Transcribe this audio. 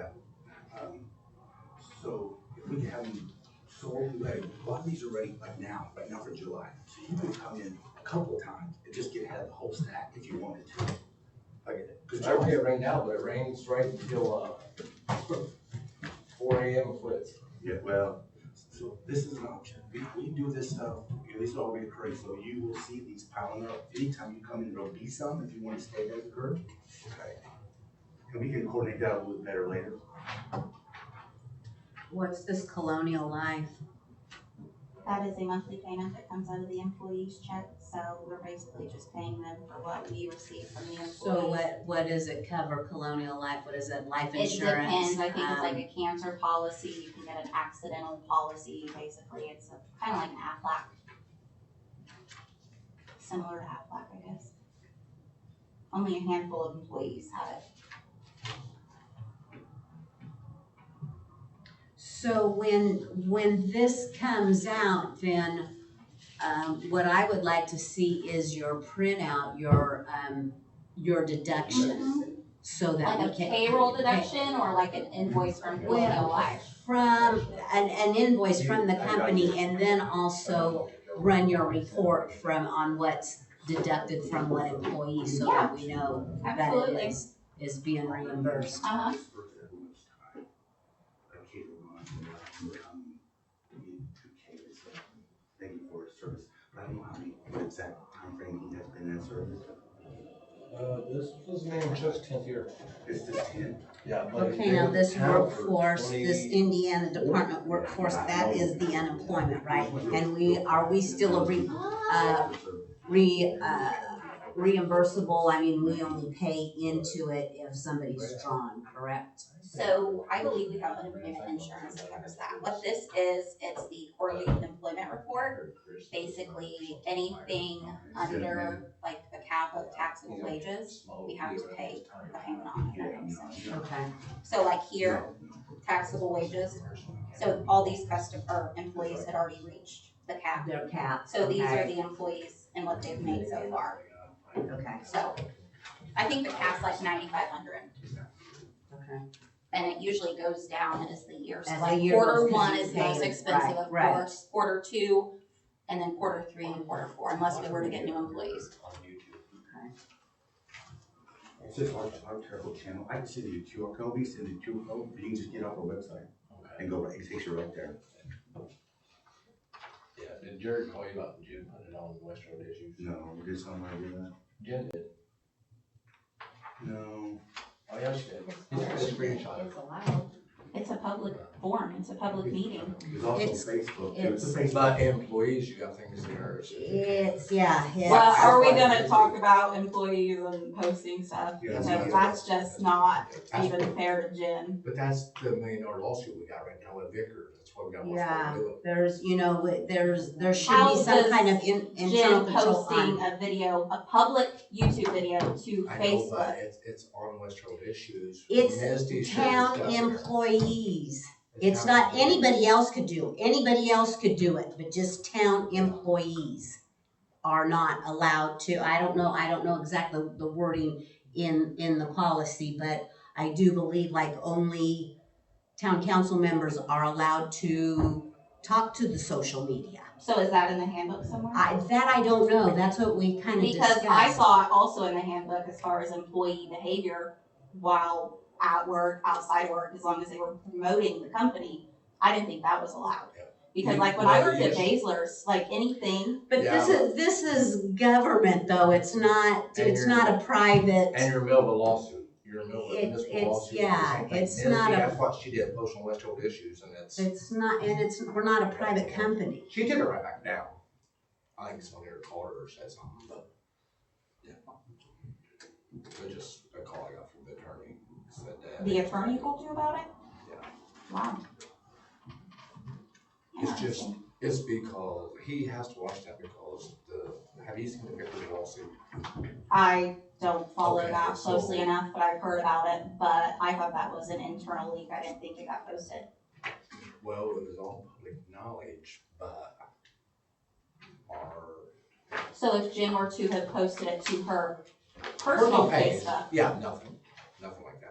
out. Um, So if we can have them slowly, like, a lot of these are ready by now, by now for July. So you can come in a couple times and just get ahead of the whole stack if you wanted to. I get it. Cause I July, forget right now, but it rains right until, uh, four AM it quits. yeah, well, so this is an option. We, we do this stuff, you know, these are all reoccurring, so you will see these piling up. Anytime you come in, there'll be some if you wanna stay there, Kurt. Okay. And we can coordinate that a little bit better later. What's this colonial life? That is a monthly payment that comes out of the employee's check, so we're basically just paying them for what we receive from the employees. So what, what does it cover, colonial life? What is it, life It insurance? depends, I think it's like Um, a cancer policy, you can get an accidental policy, basically, it's a- kinda like an Aflac. Similar to Aflac, I guess. Only a handful of employees have it. So when, when this comes out, then, um, what I would like to see is your printout, your, um, your deductions. So that Like we a can. payroll deduction or like an invoice from Colonial Well, Life. from, an, an invoice from the company and then also run your report from, on what's deducted from what employee so that we know that it Absolutely, is, is being reimbursed. uh-huh, Thank you for his service, but I don't know how many, what exact timeframe he has been in service. Uh, this was Manchester's tenth year. It's just ten. Yeah. but Okay, they now were this town for workforce, this 20 Indiana Department workforce, that is the unemployment, right? And we, are we still a re, uh, re, uh, reimbursable? I mean, we only pay into it if somebody's drawn, correct? so I believe we have unemployment insurance that covers that. What this is, it's the quarterly employment report, basically anything under like the cap of taxable wages, we have to pay the payment on, if that makes sense. Okay. So like here, taxable wages, so all these custom, or employees had already reached the cap. Their cap. So these are okay, the employees and what they've made so far, Okay, so I think the cap's like ninety-five hundred. okay. And it usually goes down as the year, so As the like year quarter goes, 'cause one you is pay- most expensive, right, of right. course, quarter two, and then quarter three and quarter four, unless we were to get new employees. It's just our, our terrible channel, I can send you a QR code, we send you a QR code, but you can just get off our website and go, right. it takes you right there. Yeah, did Jared call you about Jim putting it on the West Road issues? No, we did something like that. Jim did. uh, No, Oh, yeah, she did. It's a screenshot. allowed. It's a public forum, it's a public meeting. it's also It's- Facebook, too. it's a It's Facebook. not employees, you got things in there. It's, yeah, Well, it's, are we gonna talk about employees and posting stuff? Yeah. Because that's just not even fair to Jen. But that's the million dollar lawsuit we got right now with Vickers, that's why we got Yeah. Westford to do it. there's, you know, wi- there's, there should How be some does kind of in, internal Jen control posting on. a video, a public YouTube video to I know, but Facebook. it's, it's on Westfield issues. It's Misty should have Town stuff there. employees. The It's town not employees. anybody else could do. Anybody else could do it, but just town employees are not allowed to. I don't know, I don't know exactly the wording in, in the policy, but I do believe like only town council members are allowed to talk to the social media. So is that in the handbook somewhere? I, that I don't know. That's what we kind of Because discussed. I saw it also in the handbook as far as employee behavior while at work, outside work, as long as they were promoting the company. I didn't think that was allowed. Yeah. Because You- like when I well, worked at yes. Basler's, like anything, But this Yeah. is, this is government though, it's not, And it's you're- not a And private, you're in the middle of a lawsuit, you're in the middle of a It's- municipal it's- lawsuit. or yeah, something. it's Misty, not a- That's what she did, post on Westfield issues, and it's, it's not, and it's, we're not a private company. she did it right back now. I think someone here called her or said something, but, yeah. But just a call I got from the attorney, said that. the attorney told you about it? Yeah. Wow. It's just, it's because, he has to watch that because the, have you seen the Vickers lawsuit? I don't follow Okay, that so- closely enough, but I've heard about it, but I thought that was an internal leak, I didn't think it got posted. Well, it was all public knowledge, but our, So if Jen were to have posted it to her personal page. Facebook, Yeah, nothing, nothing like